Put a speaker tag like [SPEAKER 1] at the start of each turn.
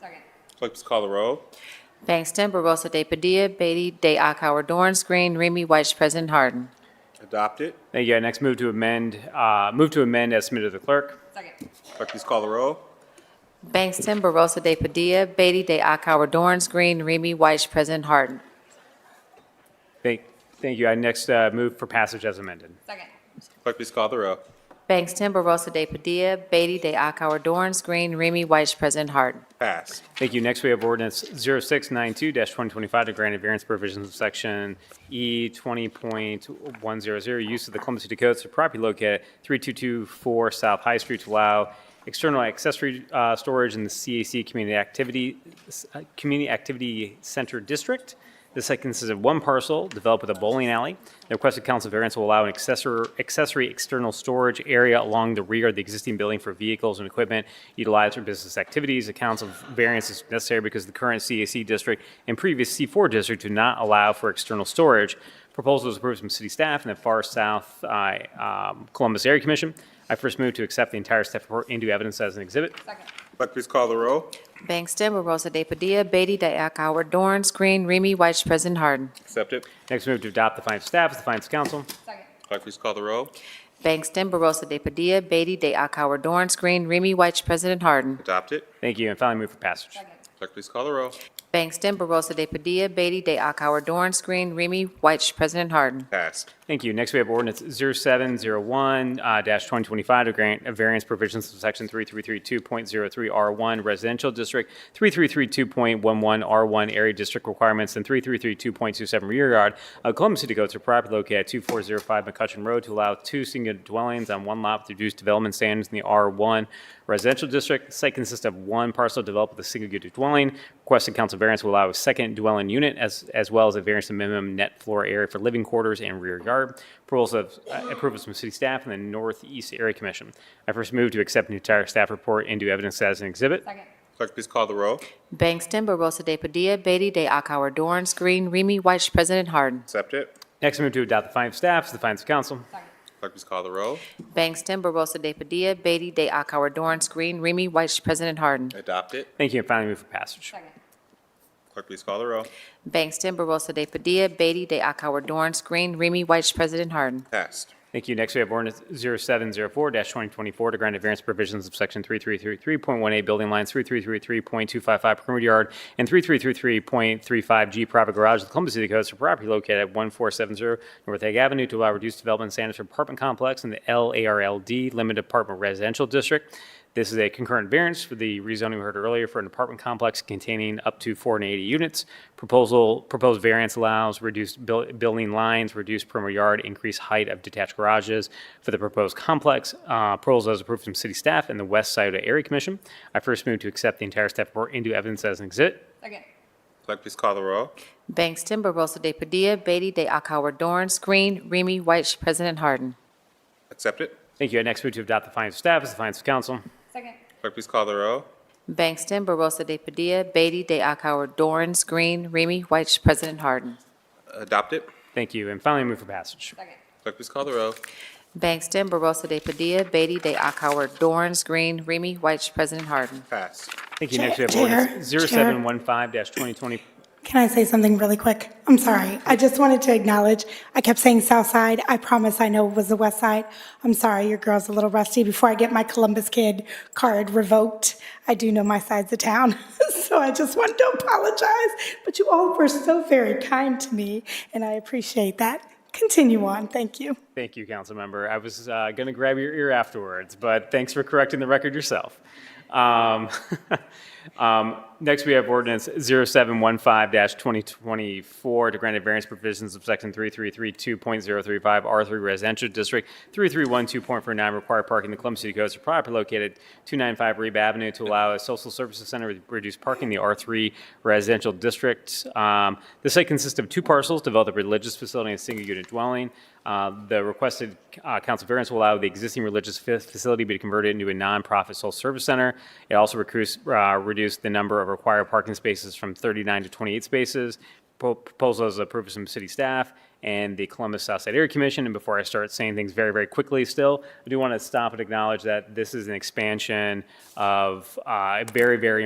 [SPEAKER 1] Second.
[SPEAKER 2] Clerk, please call the roll.
[SPEAKER 3] Bangston, Barosa de Padilla, Beatty, De Akauer, Dorance Green, Remy White, President Harden.
[SPEAKER 2] Adopted.
[SPEAKER 4] Thank you. I next move to amend, uh, move to amend as submitted to the clerk.
[SPEAKER 1] Second.
[SPEAKER 2] Clerk, please call the roll.
[SPEAKER 3] Bangston, Barosa de Padilla, Beatty, De Akauer, Dorance Green, Remy White, President Harden.
[SPEAKER 4] Thank, thank you. I next uh, move for passage as amended.
[SPEAKER 1] Second.
[SPEAKER 2] Clerk, please call the roll.
[SPEAKER 3] Bangston, Barosa de Padilla, Beatty, De Akauer, Dorance Green, Remy White, President Harden.
[SPEAKER 2] Passed.
[SPEAKER 4] Thank you. Next, we have ordinance 0692-2025 to grant a variance provisions of section E 20.100, use of the Columbus City Codes to property located at 3224 South High Street to allow external accessory uh, storage in the CAC Community Activity, uh, Community Activity Center District. This site consists of one parcel developed with a bowling alley. The requested council variance will allow an accessor- accessory external storage area along the rear of the existing building for vehicles and equipment utilized for business activities. The council variance is necessary because the current CAC district and previous C4 district do not allow for external storage. Proposal is approved from city staff and the Far South uh, um, Columbus Area Commission. I first move to accept the entire staff report into evidence as an exhibit.
[SPEAKER 1] Second.
[SPEAKER 2] Clerk, please call the roll.
[SPEAKER 3] Bangston, Barosa de Padilla, Beatty, De Akauer, Dorance Green, Remy White, President Harden.
[SPEAKER 2] Accepted.
[SPEAKER 4] Next move to adopt the findings of staff as the findings of council.
[SPEAKER 1] Second.
[SPEAKER 2] Clerk, please call the roll.
[SPEAKER 3] Bangston, Barosa de Padilla, Beatty, De Akauer, Dorance Green, Remy White, President Harden.
[SPEAKER 2] Adopted.
[SPEAKER 4] Thank you. And finally, move for passage.
[SPEAKER 1] Second.
[SPEAKER 2] Clerk, please call the roll.
[SPEAKER 3] Bangston, Barosa de Padilla, Beatty, De Akauer, Dorance Green, Remy White, President Harden.
[SPEAKER 2] Passed.
[SPEAKER 4] Thank you. Next, we have ordinance uh, 0701-2025 to grant a variance provisions of section 3332.03R1 residential district, 3332.11R1 area district requirements, and 3332.27 rear yard of Columbus City Codes for property located at 2405 McCutcheon Road to allow two single dwellings on one lot with reduced development standards in the R1 residential district. The Site consists of one parcel developed with a single unit dwelling. Requested council variance will allow a second dwelling unit as, as well as a variance to minimum net floor area for living quarters and rear yard. Approvals of, uh, approvals from city staff and the Northeast Area Commission. I first move to accept the entire staff report into evidence as an exhibit.
[SPEAKER 1] Second.
[SPEAKER 2] Clerk, please call the roll.
[SPEAKER 3] Bangston, Barosa de Padilla, Beatty, De Akauer, Dorance Green, Remy White, President Harden.
[SPEAKER 2] Accepted.
[SPEAKER 4] Next, I move to adopt the findings of staff as the findings of council.
[SPEAKER 1] Second.
[SPEAKER 2] Clerk, please call the roll.
[SPEAKER 3] Bangston, Barosa de Padilla, Beatty, De Akauer, Dorance Green, Remy White, President Harden.
[SPEAKER 2] Adopted.
[SPEAKER 4] Thank you, and finally move for passage.
[SPEAKER 1] Second.
[SPEAKER 2] Clerk, please call the roll.
[SPEAKER 3] Bangston, Barosa de Padilla, Beatty, De Akauer, Dorance Green, Remy White, President Harden.
[SPEAKER 2] Passed.
[SPEAKER 4] Thank you. Next, we have ordinance 0704-2024 to grant a variance provisions of Section 3333.1A building lines, 3333.255 perimeter yard, and 3333.35G private garage of the Columbus City Codes for property located at 1470 North Egg Avenue to allow reduced development standards for apartment complex in the LARLD Limited Apartment Residential District. This is a concurrent variance for the rezoning we heard earlier for an apartment complex containing up to 480 units. Proposal, proposed variance allows reduced buil- building lines, reduced perimeter yard, increased height of detached garages for the proposed complex. Uh, Proposal is approved from city staff and the West Scioto Area Commission. I first move to accept the entire staff report into evidence as an exhibit.
[SPEAKER 1] Second.
[SPEAKER 2] Clerk, please call the roll.
[SPEAKER 3] Bangston, Barosa de Padilla, Beatty, De Akauer, Dorance Green, Remy White, President Harden.
[SPEAKER 2] Accepted.
[SPEAKER 4] Thank you. I next move to adopt the findings of staff as the findings of council.
[SPEAKER 1] Second.
[SPEAKER 2] Clerk, please call the roll.
[SPEAKER 3] Bangston, Barosa de Padilla, Beatty, De Akauer, Dorance Green, Remy White, President Harden.
[SPEAKER 2] Adopted.
[SPEAKER 4] Thank you. And finally, move for passage.
[SPEAKER 1] Second.
[SPEAKER 2] Clerk, please call the roll.
[SPEAKER 3] Bangston, Barosa de Padilla, Beatty, De Akauer, Dorance Green, Remy White, President Harden.
[SPEAKER 2] Passed.
[SPEAKER 4] Thank you. Next, we have
[SPEAKER 5] Chair,
[SPEAKER 4] ordinance
[SPEAKER 5] Chair.
[SPEAKER 4] 0715-2020.
[SPEAKER 5] Can I say something really quick? I'm sorry. I just wanted to acknowledge, I kept saying South Side. I promise I know it was the West Side. I'm sorry, your girl's a little rusty. Before I get my Columbus Kid card revoked, I do know my sides of town. so I just wanted to apologize. But you all were so very kind to me, and I appreciate that. Continue on. Thank you.
[SPEAKER 4] Thank you, council member. I was uh, going to grab your ear afterwards, but thanks for correcting the record yourself. Um, um, Next, we have ordinance 0715-2024 to grant a variance provisions of section 3332.035 R3 Residential District, 3312.49 required parking in the Columbus City Codes for property located 295 Reeb Avenue to allow a social services center with reduced parking in the R3 Residential District. Um, The site consists of two parcels, developed a religious facility and a single-unit dwelling. Uh, The requested uh, council variance will allow the existing religious fa- facility to be converted into a nonprofit social service center. It also recruits- uh, reduced the number of required parking spaces from 39 to 28 spaces. Pro- Proposal is approved from city staff and the Columbus Southside Area Commission. And before I start saying things very, very quickly still, I do want to stop and acknowledge that this is an expansion of uh, a very, very